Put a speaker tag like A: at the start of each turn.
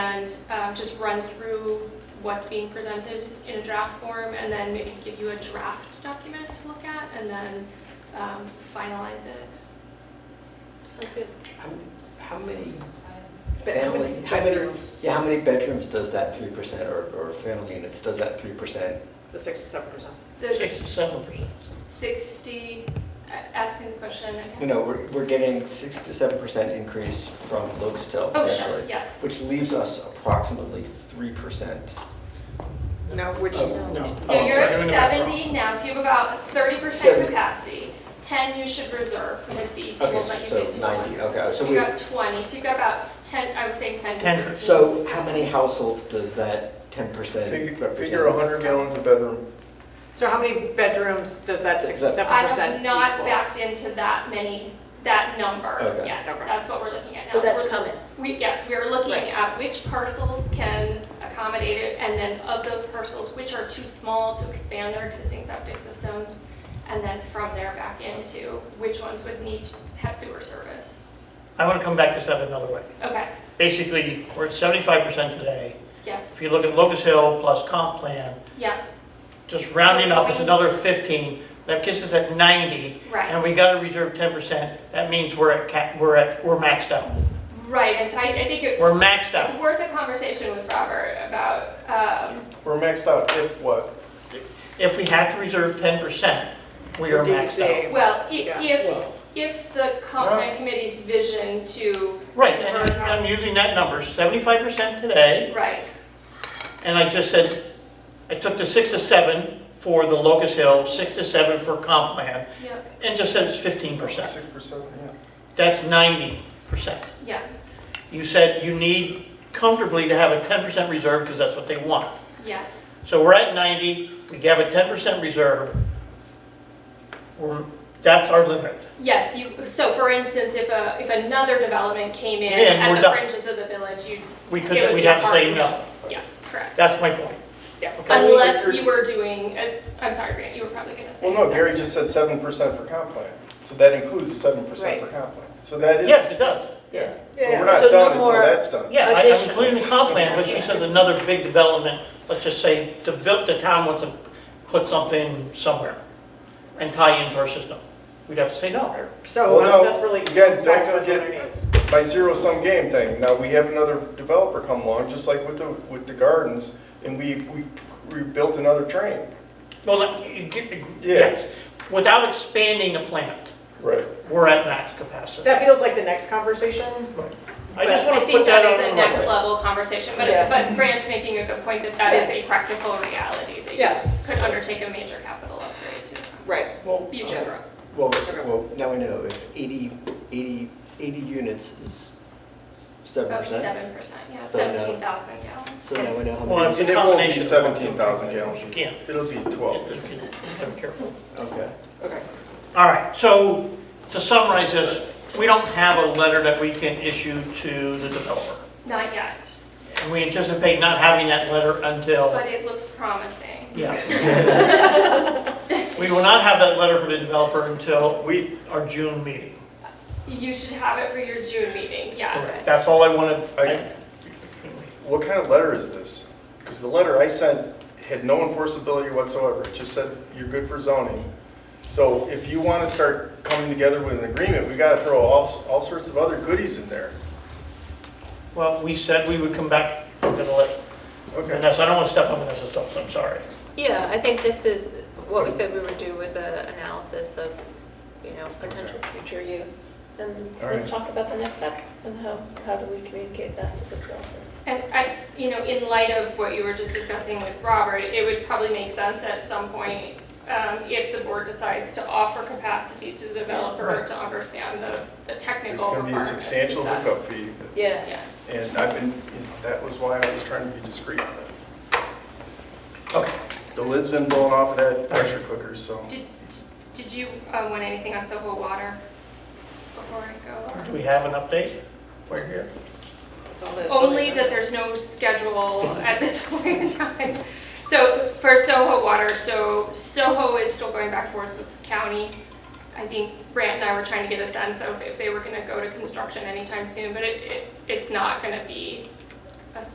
A: and um, just run through what's being presented in a draft form, and then maybe give you a draft document to look at, and then um, finalize it.
B: Sounds good.
C: How- How many
B: But how
C: family,
B: many
C: how many,
B: bedrooms?
C: yeah, how many bedrooms does that three percent or, or family units, does that three percent?
D: The sixty-seven percent.
A: The
E: Sixty-seven percent.
A: Sixty, uh, asking the question.
C: You know, we're, we're getting six to seven percent increase from Locatel
A: Oh, sure,
C: potentially,
A: yes.
C: which leaves us approximately three percent.
D: No, which,
E: Oh, No. Oh,
A: Yeah,
E: I'm
A: you're
E: sorry.
A: at
E: No, no, that's wrong.
A: seventy now, so you have about thirty percent
C: Seventy.
A: capacity. Ten you should reserve for this DEC,
C: Okay,
A: we'll let you
C: so
A: get to one.
C: ninety, okay, so
A: So
C: we,
A: you got twenty, so you've got about ten, I would say ten to
E: 10.
A: thirteen.
C: so how many households does that ten percent
F: Figure
C: represent?
F: figure 100 gallons a bedroom.
D: so how many bedrooms does that sixty-seven
A: I
D: percent
A: have not
D: equal?
A: backed into that many, that number
C: Okay.
A: yet.
D: Okay.
A: That's what we're looking at now.
B: But
A: So
B: that's
A: we're-
B: coming.
A: We, yes, we are looking
D: Right.
A: at which parcels can accommodate it, and then of those parcels, which are too small to expand their existing septic systems, and then from there back into which ones would need, to have sewer service.
E: I want to come back to seven another way.
A: Okay,
E: Basically, we're at seventy-five percent today. If
A: yes,
E: you look at Locust Hill plus comp plan,
A: yeah,
E: just rounding up, it's
A: Point.
E: another fifteen. That gets us at ninety.
A: Right.
E: And we got to reserve ten percent. That means we're at cap, we're at, we're maxed out.
A: right, and so I, I think it's,
E: We're maxed
A: it's
E: out.
A: worth a conversation with Robert about, um,
F: We're maxed out if what?
E: If we have to reserve ten percent, we
D: For
E: are maxed
D: DCA.
E: out.
A: well, i-
D: Yeah.
A: if, if the comp plan committee's vision to.
E: Right, and
A: convert
E: I'm- I'm
A: housing-
E: using that number, seventy-five percent today.
A: Right,
E: And I just said, I took the six to seven for the Locust Hill, six to seven for comp plan,
A: yep,
E: and just said it's fifteen percent.
F: 6%, yeah.
E: That's ninety percent.
A: yeah,
E: You said you need comfortably to have a ten percent reserve because that's what they want.
A: yes.
E: So we're at ninety, we have a ten percent reserve. We're, that's our limit.
A: Yes, you, so for instance, if a, if another development came in
E: Yeah, and
A: at
E: we're
A: the
E: done.
A: fringes of the village, you'd.
E: We
A: it
E: could,
A: would
E: we'd
A: be a
E: have to say
A: hard
E: no.
A: Yeah, correct.
E: That's my point.
D: Yeah.
E: Okay.
A: Unless you were doing, as, I'm sorry, Grant, you were probably gonna say.
F: Well, no,
A: something.
F: Gary just said 7% for comp plan. So that includes the 7% for
B: Right.
F: comp plan. So that is,
E: Yes, it does.
F: yeah. So
B: Yeah.
F: we're not
B: So no
F: done until
B: more-
F: that's done.
E: Yeah, I- I'm
B: Additions.
E: including the comp plan, but she says another big development, let's just say, the vil- the town wants to put something somewhere and tie into our system. We'd have to say no.
D: So
F: Well, no,
D: that's really,
F: again,
D: that's
F: don't
D: back those
F: forget-
D: other names.
F: By zero-sum game thing. Now, we have another developer come along, just like with the, with the gardens, and we, we we built another train.
E: Well, like, you get-
F: Yeah.
E: yes, without expanding the plant,
F: Right.
E: we're at max capacity.
D: That feels like the next conversation.
E: I just
A: I
E: want to
A: think
E: put that
A: that
E: out
A: is
E: on
A: a
E: the
A: next
E: record.
A: level conversation, but,
D: Yeah.
A: but Grant's making a good point that that is a practical reality that
D: Yeah.
A: you could undertake a major capital upgrade to
D: Right.
C: Well,
A: future
C: uh,
A: growth.
C: Well, well, now we know if 80 80 80 units is seven
A: About
C: percent.
A: Oh, seven percent, yeah,
C: So no.
A: seventeen thousand gallons.
C: So now we know how many.
E: Well, it's a
F: And it won't be
E: combination. of all
F: 17,000
E: three
F: gallons.
E: things. You can't.
F: It'll be 12.
E: If you- I'm careful.
C: Okay.
D: Okay.
E: All right, so to summarize this, we don't have a letter that we can issue to the developer.
A: Not yet,
E: And we anticipate not having that letter until,
A: but it looks promising.
E: yeah. We will not have that letter from the developer until
F: We,
E: our June meeting.
A: You should have it for your June meeting, yes.
E: That's all I wanted.
F: I- What kind of letter is this? Because the letter I sent had no enforceability whatsoever. It just said, you're good for zoning. So if you want to start coming together with an agreement, we got to throw all, all sorts of other goodies in there.
E: Well, we said we would come back to the letter.
F: Okay.
E: Vanessa, I don't want to step on Vanessa's toes, I'm sorry.
B: Yeah, I think this is, what we said we would do was a analysis of, you know, potential future use. And
F: All
B: let's
F: right.
B: talk about the next step and how, how do we communicate that to the developer?
A: And I, you know, in light of what you were just discussing with Robert, it would probably make sense at some point, um, if the board decides to offer capacity to the developer
E: Right.
A: to understand the, the
F: There's
A: technical
F: going to be a
A: requirements.
F: substantial
A: That's-
F: hookup fee.
B: Yeah.
A: Yeah,
F: And I've been, you know, that was why I was trying to be discreet. on it.
E: Okay.
F: The lid's been blown off of that pressure cooker, so.
A: did, did you, uh, want anything on Soho Water before I go? or-
E: Do we have an update? We're here.
B: It's all those
A: Only
B: other
A: that
B: numbers.
A: there's no schedule at this point in time. So for Soho Water, so Soho is still going back and forth with the county. I think Brant and I were trying to get a sense of if they were gonna go to construction anytime soon, but it, it, it's not gonna be